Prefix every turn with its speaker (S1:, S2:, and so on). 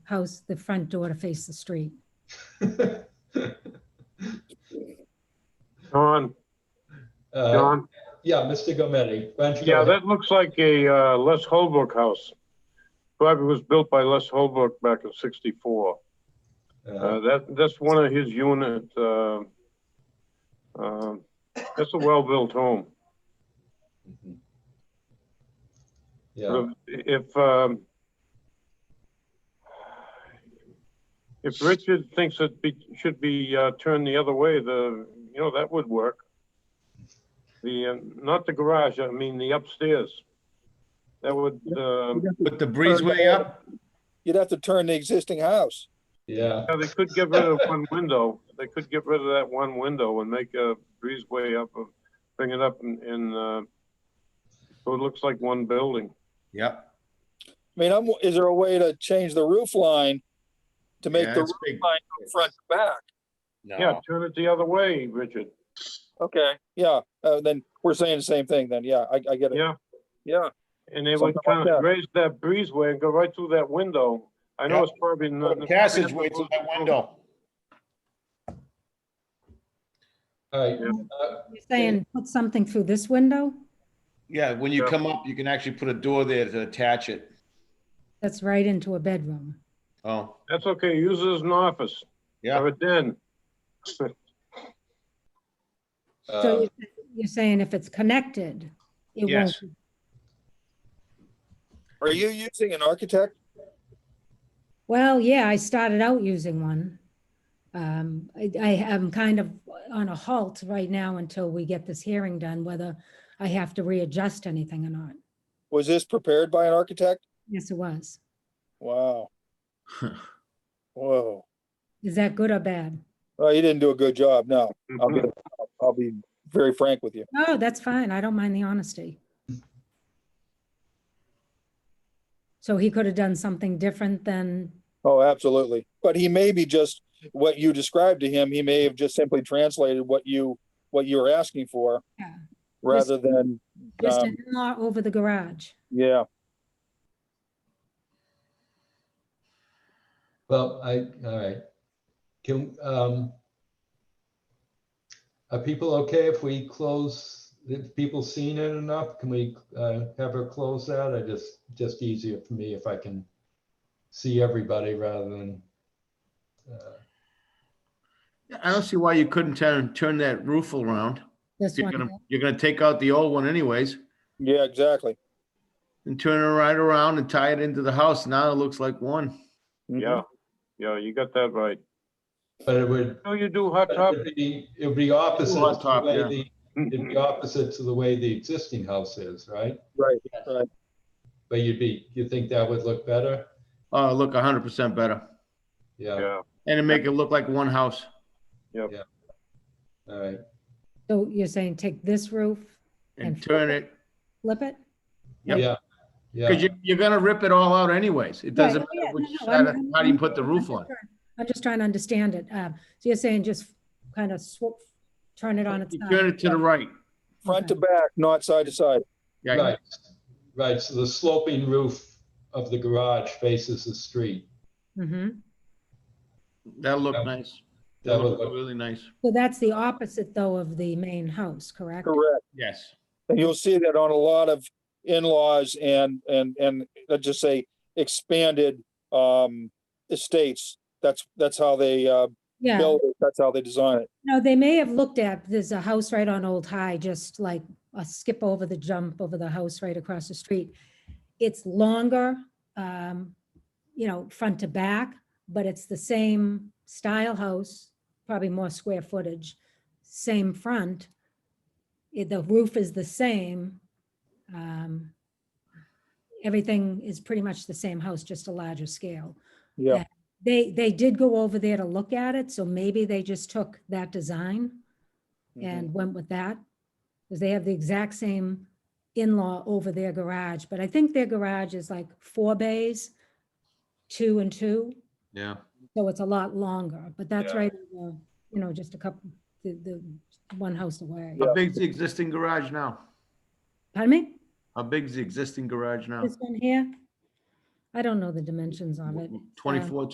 S1: house, the front door to face the street.
S2: John,
S3: Uh,
S2: John,
S3: Yeah, Mr. Gometti, why don't you go
S2: yeah,
S3: ahead?
S2: that looks like a uh, Les Holbrook house. Probably was built by Les Holbrook back in sixty-four.
S3: Uh,
S2: Uh, that, that's one of his unit, uh, um, that's a well-built home.
S3: mhm. Yeah, Mm-hmm.
S2: If, if, um, if Richard thinks it be, should be, uh, turned the other way, the, you know, that would work. The, uh, not the garage, I mean the upstairs. That would, um,
S4: Put the breezeway up?
S5: You'd have to turn the existing house.
S3: yeah,
S2: yeah, they could get rid of one window. They could get rid of that one window and make a breezeway up, uh, bring it up and, and, uh, so it looks like one building.
S4: Yep.
S5: I mean, I'm, is there a way to change the roof line to make
S4: Yeah,
S5: the
S4: it's
S5: roof
S4: big.
S5: line go front to back?
S2: Yeah, turn it the other way, Richard.
S5: Okay, yeah, uh, then we're saying the same thing then. Yeah, I, I get it.
S2: Yeah.
S5: Yeah,
S2: And they would
S5: Something like
S2: kind of
S5: that.
S2: raise that breezeway and go right through that window. I know
S4: Yeah.
S2: it's probably
S4: Put
S2: not.
S4: a Passageway through that window.
S3: all right.
S2: Yeah.
S3: Uh,
S1: You're saying put something through this window?
S4: Yeah, when you come up, you can actually put a door there to attach it.
S1: That's right into a bedroom.
S4: Oh,
S2: That's okay. Use it as an office
S4: yeah,
S2: or a den.
S1: So
S3: uh,
S1: you're- you're saying if it's connected, it won't.
S4: Yes.
S1: be-
S5: are you using an architect?
S1: Well, yeah, I started out using one. Um, I, I am kind of on a halt right now until we get this hearing done, whether I have to readjust anything or not.
S5: Was this prepared by an architect?
S1: Yes, it was.
S5: Wow, whoa.
S1: Is that good or bad?
S5: Well, you didn't do a good job, no. I'll be, I'll be very frank with you.
S1: No, Oh, that's fine. I don't mind the honesty. So he could have done something different than,
S5: Oh, absolutely. But he may be just what you described to him. He may have just simply translated what you, what you were asking for.
S1: Yeah.
S5: Rather than,
S1: just
S5: um,
S1: an in-law over the garage.
S5: yeah,
S3: Well, I, all right. Can, um, are people okay if we close, if people seen it enough? Can we, uh, have her close that? I just, just easier for me if I can see everybody rather than, uh,
S4: I don't see why you couldn't turn, turn that roof around.
S1: This
S4: You're
S1: one,
S4: gonna,
S1: here.
S4: you're gonna take out the old one anyways
S5: yeah, exactly.
S4: and turn it right around and tie it into the house. Now it looks like one.
S5: Mhm.
S2: Yeah, yeah, you got that right.
S3: but it would,
S2: So you do hot
S3: But
S2: top,
S3: It would be, it would be opposite
S4: Hot
S3: to the
S4: top,
S3: way
S4: yeah.
S3: the- it'd be opposite to the way the existing house is, right?
S5: Right,
S3: Yes.
S5: right.
S3: But you'd be, you think that would look better?
S4: Oh, look, hundred percent better.
S3: Yeah,
S2: yeah.
S4: And to make it look like one house.
S3: all right.
S1: so you're saying take this roof,
S4: and
S1: And-
S4: turn it,
S1: flip it?
S4: Yep.
S3: Yeah, yeah,
S4: because you, you're gonna rip it all out anyways. It doesn't
S1: Right, Oh, yeah, no,
S4: matter which
S1: no,
S4: side, of-
S1: I'm- I'm-
S4: how do you put the
S1: I'm
S4: roof
S1: just
S4: on?
S1: trying- I'm just trying to understand it. Uh, So you're saying just kind of swoop, turn it on its
S4: You
S1: side?
S4: turn it to the right.
S5: Front to back, not side to side.
S4: Yeah,
S3: right, right. So the sloping roof of the garage faces the street.
S1: Mhm.
S4: that'll look nice.
S3: That
S4: That'll
S3: would
S4: look
S3: look,
S4: really nice.
S1: So that's the opposite though of the main house, correct?
S5: Correct.
S4: Yes.
S5: And you'll see that on a lot of in-laws and, and, and let's just say expanded, um, estates. That's, that's how they, uh,
S1: Yeah,
S5: build it. That's how they design it.
S1: no, they may have looked at, there's a house right on Old High, just like a skip over the jump over the house right across the street. It's longer, um, you know, front to back, but it's the same style house, probably more square footage, same front. It- The roof is the same. um, Everything is pretty much the same house, just a larger scale.
S5: Yeah,
S1: They, they did go over there to look at it, so maybe they just took that design and went with that. Because they have the exact same in-law over their garage, but I think their garage is like four bays, two and two,
S4: Yeah.
S1: so it's a lot longer, but that's
S3: Yeah.
S1: right, over, you know, just a couple, the, the one house away.
S4: How big's the existing garage now?
S1: Pardon me?
S4: How big's the existing garage now?
S1: This one here?
S6: I don't know the dimensions of it.
S1: Twenty-four